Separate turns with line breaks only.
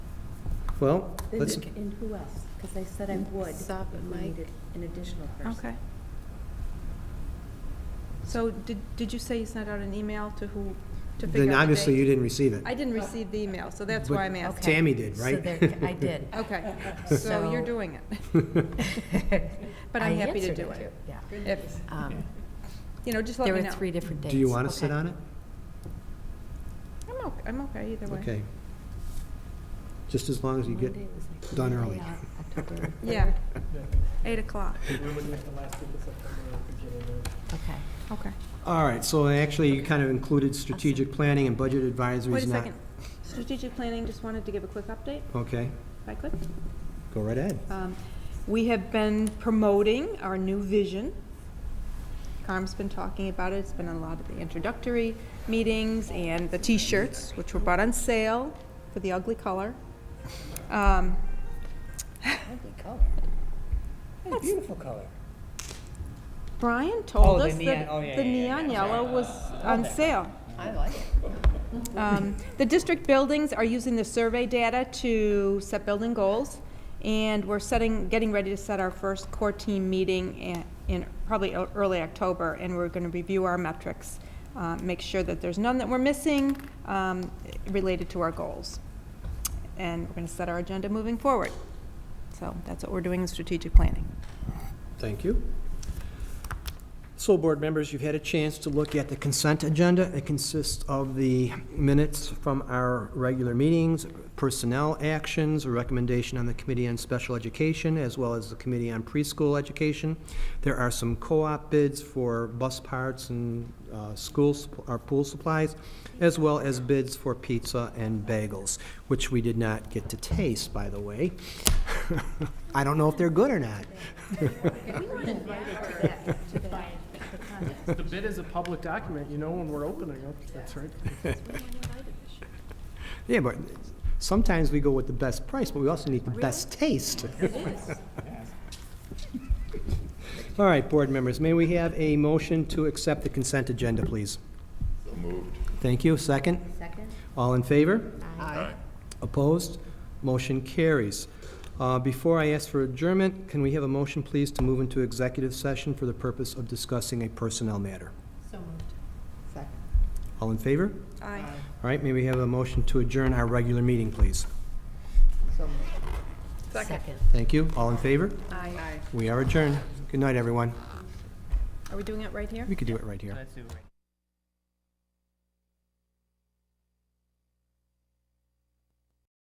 Well,
And
let's,
and who else? Because I said I would.
Sop
if
and
we
Mike.
needed An additional person.
Okay. So did, did you say you sent out an email to who, to figure out the
then obviously
date?
you didn't receive it.
I didn't receive the email, so that's
But
why I'm asking.
Tammy did,
So
right?
there- I did.
Okay, so you're
So-
doing it. But I'm
I
happy to
answered
do
too,
it.
Yeah.
If,
Um,
you know, just let
There
me
were
know.
three different dates.
Do you want to sit
Okay.
on it?
I'm okay, I'm okay either way.
Okay. Just as long as you get
Monday was like-
done early.
Yeah, October
Yeah,
Yeah,
eight o'clock,
We're looking at the last week of September, beginning of.
Okay.
okay.
All right, so actually you kind of included strategic planning and budget advisory
Wait a
is not.
second. Strategic planning, just wanted to give a quick update,
Okay,
if I could.
go right ahead.
Um, We have been promoting our new vision. Carm's been talking about it, it's been in a lot of the introductory meetings and the T-shirts, which were bought on sale for the ugly color. Um,
Ugly color.
Beautiful color.
Brian
Oh,
told
the
us
neon- oh,
that
yeah,
the
yeah, yeah,
neon
yeah.
yellow was on sale.
I like it.
Um, The district buildings are using the survey data to set building goals, and we're setting, getting ready to set our first core team meeting in- in probably ear- early October, and we're going to review our metrics, uh, make sure that there's none that we're missing um, related to our goals. And we're going to set our agenda moving forward. So that's what we're doing in strategic planning.
Thank you. So, board members, you've had a chance to look at the consent agenda. It consists of the minutes from our regular meetings, personnel actions, a recommendation on the Committee on Special Education, as well as the Committee on Preschool Education. There are some co-op bids for bus parts and uh, school, supp- or pool supplies, as well as bids for pizza and bagels, which we did not get to taste, by the way. I don't know if they're good or not.
The bid is a public document, you know when we're opening it, that's right.
Yeah, but sometimes we go with the best price, but we also need the best taste. All right, board members, may we have a motion to accept the consent agenda, please? moved. Thank you. Second?
Second?
All in favor?
Aye.
Opposed? Motion carries. Uh, Before I ask for adjournment, can we have a motion, please, to move into executive session for the purpose of discussing a personnel matter?
So moved. Second.
All in favor?
Aye.
All right, may we have a motion to adjourn our regular meeting, please?
Second.
Thank you. All in favor?
Aye.
We are adjourned. Good night, everyone.
Are we doing it right here?
We could do it right here.
Let's do it right